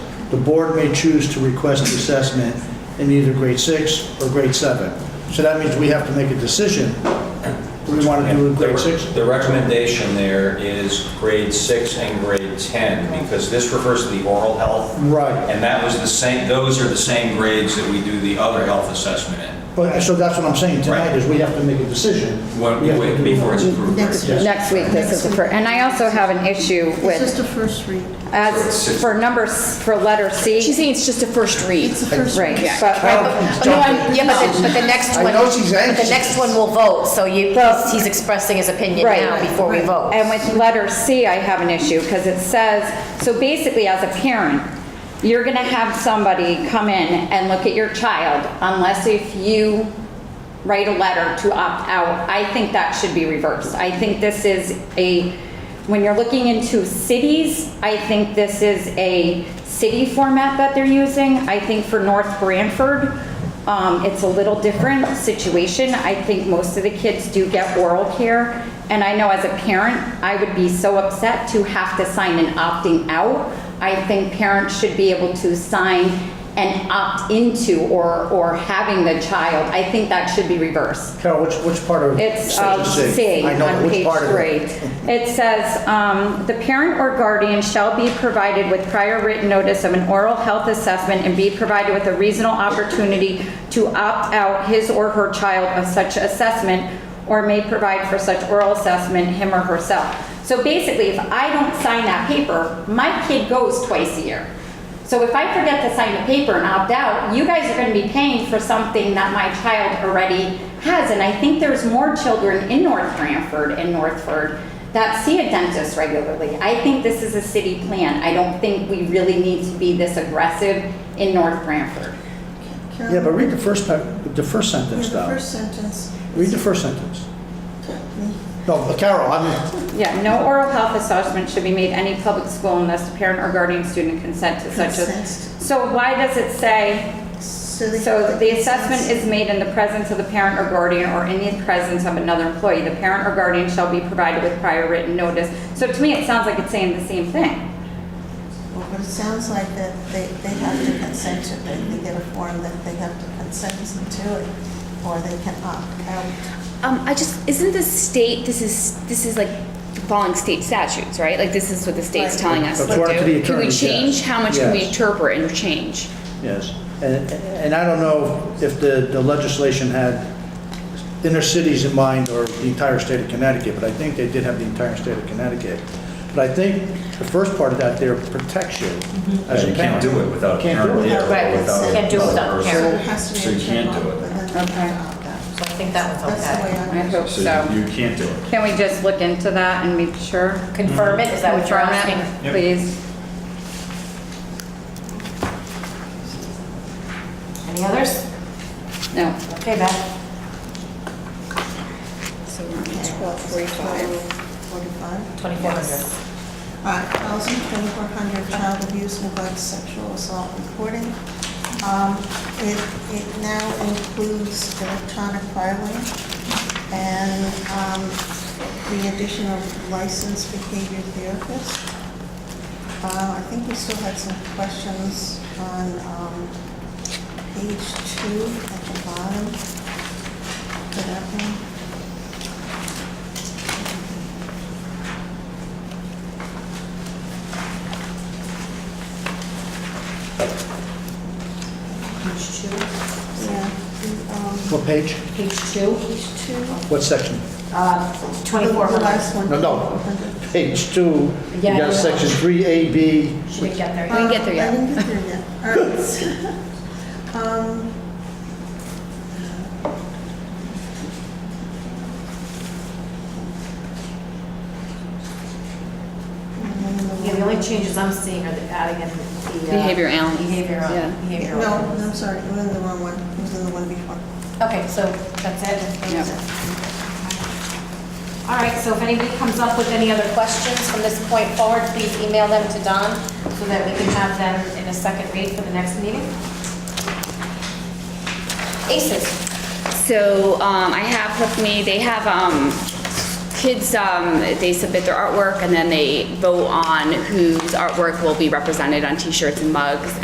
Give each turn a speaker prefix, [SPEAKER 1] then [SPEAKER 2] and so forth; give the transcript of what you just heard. [SPEAKER 1] The board may choose to request the assessment in either grade six or grade seven. So that means we have to make a decision. Do we want to do it in grade six?
[SPEAKER 2] The recommendation there is grade six and grade 10, because this refers to the oral health.
[SPEAKER 1] Right.
[SPEAKER 2] And that was the same, those are the same grades that we do the other health assessment in,
[SPEAKER 1] But, so that's what I'm saying tonight, is we have to make a decision.
[SPEAKER 2] when-
[SPEAKER 1] We have to do-
[SPEAKER 2] before it's approved.
[SPEAKER 3] Next
[SPEAKER 2] right?
[SPEAKER 3] week.
[SPEAKER 4] Next week, this is the first, and I also have an issue
[SPEAKER 3] It's just
[SPEAKER 4] with,
[SPEAKER 3] a first read.
[SPEAKER 4] as for number, s- for letter C.
[SPEAKER 5] She's saying it's just a first read.
[SPEAKER 3] It's a first
[SPEAKER 4] Right,
[SPEAKER 3] read.
[SPEAKER 4] but
[SPEAKER 1] Cal,
[SPEAKER 6] Oh, No, I'm, yeah, but the, but the next
[SPEAKER 1] I
[SPEAKER 6] one,
[SPEAKER 1] know she's
[SPEAKER 6] but
[SPEAKER 1] anxious.
[SPEAKER 6] the next one will vote, so you,
[SPEAKER 4] Well-
[SPEAKER 6] he's expressing his opinion
[SPEAKER 4] Right.
[SPEAKER 6] now before we vote.
[SPEAKER 4] And with letter C, I have an issue, because it says, so basically, as a parent, you're gonna have somebody come in and look at your child, unless if you write a letter to opt out. I think that should be reversed. I think this is a, when you're looking into cities, I think this is a city format that they're using. I think for North Branford, um, It's a little different situation. I think most of the kids do get oral care, and I know as a parent, I would be so upset to have to sign an opting out. I think parents should be able to sign an opt into or, or having the child. I think that should be reversed.
[SPEAKER 1] Carol, which, which part of?
[SPEAKER 4] It's
[SPEAKER 1] section
[SPEAKER 4] um, C
[SPEAKER 1] I know,
[SPEAKER 4] on
[SPEAKER 1] which
[SPEAKER 4] page
[SPEAKER 1] part of it?
[SPEAKER 4] three. It says, um, "The parent or guardian shall be provided with prior written notice of an oral health assessment and be provided with a reasonable opportunity to opt out his or her child of such assessment or may provide for such oral assessment him or herself." So basically, if I don't sign that paper, my kid goes twice a year. So if I forget to sign the paper and opt out, you guys are gonna be paying for something that my child already has. And I think there's more children in North Branford and Northford that see a dentist regularly. I think this is a city plan. I don't think we really need to be this aggressive in North Branford.
[SPEAKER 3] Carol,
[SPEAKER 1] Yeah, but read the first, pa- the first sentence
[SPEAKER 3] The
[SPEAKER 1] though.
[SPEAKER 3] first sentence.
[SPEAKER 1] Read the first sentence. No, but Carol, I'm,
[SPEAKER 4] Yeah, no oral health assessment should be made any public school unless the parent or guardian student consent to such a.
[SPEAKER 3] Consents.
[SPEAKER 4] So why does it say?
[SPEAKER 3] So
[SPEAKER 4] So the assessment is made in the presence of the parent or guardian or in the presence of another employee. The parent or guardian shall be provided with prior written notice. So to me, it sounds like it's saying the same thing.
[SPEAKER 3] Well, But it sounds like that they, they have to consent to it. They get a form that they have to consent to it, or they can opt out.
[SPEAKER 5] Um, I just, isn't the state, this is, this is like following state statutes, right? Like, this is what the state's
[SPEAKER 3] Right.
[SPEAKER 5] telling us
[SPEAKER 1] That's what
[SPEAKER 5] to
[SPEAKER 1] to the
[SPEAKER 5] do. Can we
[SPEAKER 1] attorneys,
[SPEAKER 5] change?
[SPEAKER 1] yes.
[SPEAKER 5] How much can we
[SPEAKER 1] Yes.
[SPEAKER 5] interpret and change?
[SPEAKER 1] yes. And, and I don't know if the, the legislation had inner cities in mind or the entire state of Connecticut, but I think they did have the entire state of Connecticut. But I think the first part of that there protects you
[SPEAKER 6] Mm-hmm.
[SPEAKER 1] as a
[SPEAKER 2] You
[SPEAKER 1] parent.
[SPEAKER 2] can't do it without a
[SPEAKER 1] Can't
[SPEAKER 2] parent
[SPEAKER 1] do it.
[SPEAKER 2] there,
[SPEAKER 6] Right,
[SPEAKER 2] or without.
[SPEAKER 6] can't do it without a
[SPEAKER 2] another
[SPEAKER 6] parent.
[SPEAKER 3] So it
[SPEAKER 2] person.
[SPEAKER 3] has to be
[SPEAKER 2] So
[SPEAKER 3] a
[SPEAKER 2] you can't do
[SPEAKER 3] general,
[SPEAKER 2] it.
[SPEAKER 3] but then they
[SPEAKER 4] Okay.
[SPEAKER 3] can opt out.
[SPEAKER 6] So I think that one's
[SPEAKER 3] That's the way
[SPEAKER 6] okay.
[SPEAKER 3] I
[SPEAKER 4] I hope
[SPEAKER 2] So
[SPEAKER 4] so.
[SPEAKER 2] you can't do it.
[SPEAKER 4] Can we just look into that and make sure?
[SPEAKER 6] Confirm it, is that what you're
[SPEAKER 4] Confirm it,
[SPEAKER 6] asking?
[SPEAKER 2] Yep.
[SPEAKER 4] Please.
[SPEAKER 6] Any others?
[SPEAKER 4] No.
[SPEAKER 6] Okay, Beth.
[SPEAKER 5] So we're
[SPEAKER 3] Okay,
[SPEAKER 5] at
[SPEAKER 3] what's
[SPEAKER 5] 12:45.
[SPEAKER 3] 12:45?
[SPEAKER 6] 2400.
[SPEAKER 3] All right, 1,400 child abuse, neglect, sexual assault reporting. Um, It it now includes electronic filing and um, the addition of licensed behavior therapist. Uh, I think we still had some questions on um, page two at the bottom. Did that one? Yeah. the, um,
[SPEAKER 1] What page?
[SPEAKER 6] Page two,
[SPEAKER 3] Page two.
[SPEAKER 1] What section?
[SPEAKER 6] uh,
[SPEAKER 3] The
[SPEAKER 6] 2400.
[SPEAKER 3] last one.
[SPEAKER 1] No, no. Page two, you
[SPEAKER 6] Yeah,
[SPEAKER 1] got
[SPEAKER 6] no.
[SPEAKER 1] section three A, B,
[SPEAKER 6] She didn't get there
[SPEAKER 3] Um,
[SPEAKER 6] yet.
[SPEAKER 5] get there
[SPEAKER 3] I
[SPEAKER 5] yet.
[SPEAKER 3] didn't get there yet. All right. Um, and then
[SPEAKER 6] Yeah, the only changes I'm seeing are the adding in the. uh,
[SPEAKER 5] Behavior analysis. Yeah.
[SPEAKER 3] No,
[SPEAKER 6] Behavioral, behavioral.
[SPEAKER 3] no, I'm sorry, I'm in the wrong one, I was in the one before.
[SPEAKER 6] Okay, so that's it? All right, so if anybody comes up with any other questions from this point forward, please email them to Don so that we can have them in a second read for the next meeting. ACES.
[SPEAKER 5] So um, I have with me, they have um, kids, um, they submit their artwork and then they vote on whose artwork will be represented on t-shirts and mugs